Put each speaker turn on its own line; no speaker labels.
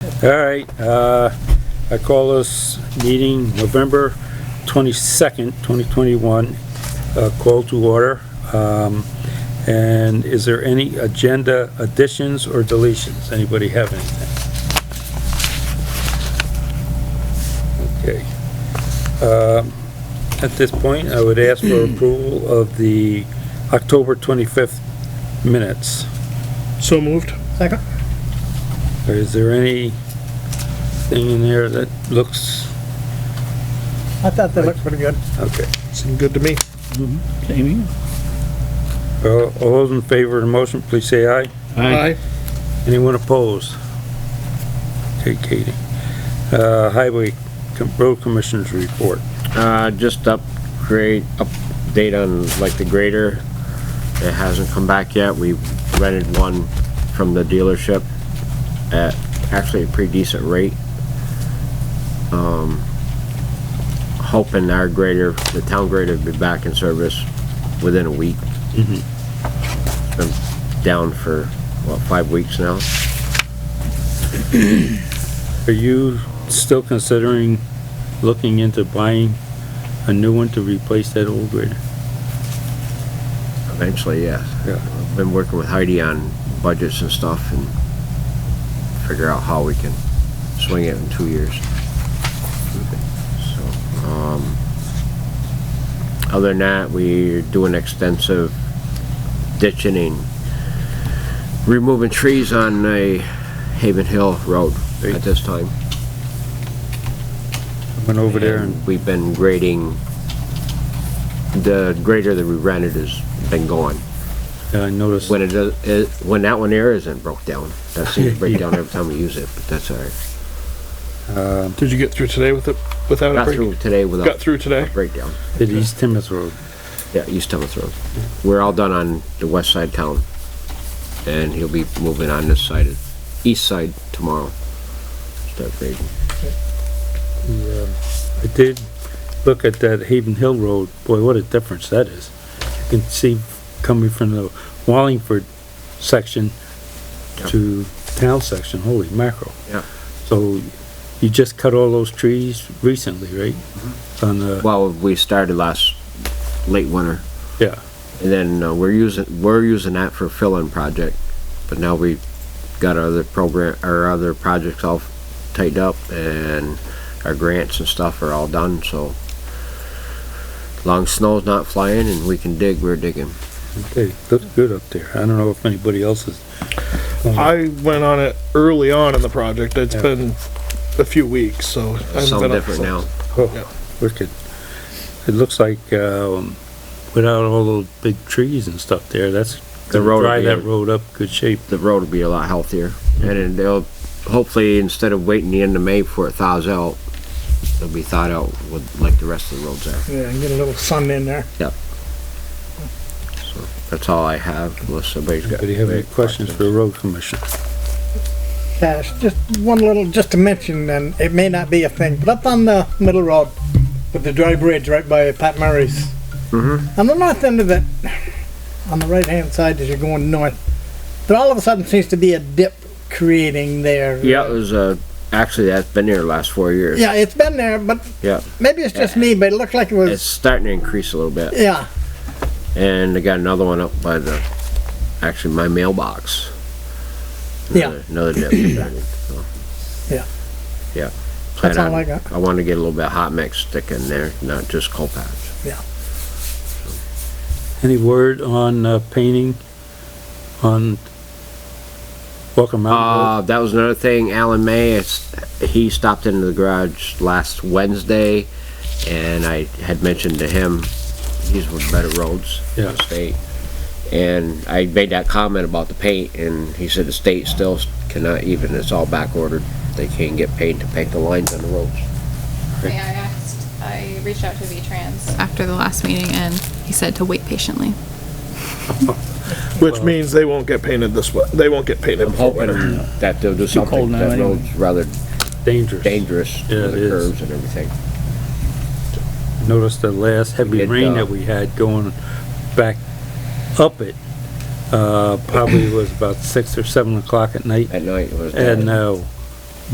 All right, uh, I call this meeting November 22nd, 2021, uh, call to order. Um, And is there any agenda additions or deletions? Anybody have anything? Okay. Um, At this point, I would ask for approval of the October 25th minutes.
So moved.
Second?
Or Is there anything in there that looks,
I thought they looked pretty good.
okay.
Seemed good to me.
Jamie?
All all those in favor of the motion, please say aye.
Aye.
Anyone opposed? Okay, Katie. Uh, Highway Com- Road Commissioners report.
Uh, just upgrade, update on like the grader. It hasn't come back yet. We rented one from the dealership at actually a pretty decent rate. Um, hoping our grader, the town grader will be back in service within a week.
Mhm.
Been down for, what, five weeks now?
Are you still considering looking into buying a new one to replace that old grader?
Eventually, yes.
Yeah.
I've Been working with Heidi on budgets and stuff and figure out how we can swing it in two years. So, um, other than that, we're doing extensive ditching and removing trees on a Haven Hill Road at this time.
I Went over there and,
We've been grading, the grader that we rented has been going.
and I uh, noticed,
When it does, it, when that one there isn't broke down, that seems to break down every time we use it, but that's all right.
um,
Did you get through today with it, without a
Got
break?
through today
Got
without
through today?
breakdown.
at East Timoth Road.
Yeah, East Thomas Road. We're all done on the west side town. And he'll be moving on this side, east side tomorrow. Start grading.
The, um, I did look at that Haven Hill Road, boy, what a difference that is. You can see coming from the Wallingford section
Yeah.
to town section, holy mackerel.
Yeah.
So you just cut all those trees recently, right?
Mm-hmm.
On the,
Well, we started last, late winter.
yeah,
And then uh, we're using, we're using that for fill-in project, but now we got our other program, our other projects all tightened up and our grants and stuff are all done, so. Long snow's not flying and we can dig, we're digging.
okay, looks good up there. I don't know if anybody else is.
I went on it early on in the project. It's
Yeah.
been a few weeks, so. I haven't
Something
been up
different now.
since. Yeah.
Oh, wicked. It looks like, um, without all those big trees and stuff there, that's.
The
gonna
road
Dry
again.
that road up good shape.
The road will be a lot healthier and then they'll, hopefully, instead of waiting the end of May before it thaws out, it'll be thawed out with, like the rest of the roads are.
Yeah, and get a little sun in there.
That's all I have, unless somebody's got.
Anybody have any questions for the road commission?
Yes, just one little, just to mention, and it may not be a thing, but up on the middle road with the dry bridge right by Pat Murray's. Mm-hmm. On the north end of it, on the right-hand side as you're going north, there all of a sudden seems to be a dip creating there.
Yeah, it was, uh, actually, that's been there the last four years.
Yeah, it's been there, but
Yeah,
maybe it's just me, but it looked like it
it's
was,
starting to increase a little bit.
yeah.
And they got another one up by the, actually, my mailbox.
Yeah.
Another- Another dip. so.
Yeah.
Yeah.
That's
Plan
all
on-
I got.
I want to get a little bit of hot mix stick in there, not just coal patch.
Any word on uh, painting on Walker Mountain
Uh, that was another thing, Alan May, it's- he stopped into the garage last Wednesday, and I had mentioned to him, these were better roads. in the
Yeah.
State. And I made that comment about the paint, and he said the state still cannot even, it's all back ordered. They can't get paid to paint the lines on the roads.
Yeah, I asked, I reached out to V-Trans after the last meeting and he said to wait patiently.
Which means they won't get painted this way. They won't get painted.
I'm hoping that they'll do
cold
something,
now
that
anyway.
road's rather Uh,
Road? Dangerous.
dangerous
Yeah,
with
it
the
is.
curves and everything.
Noticed the last heavy
It,
rain
uh,
that we had going back up it, uh, probably was about six or seven o'clock at night.
At night, it was.
And, uh,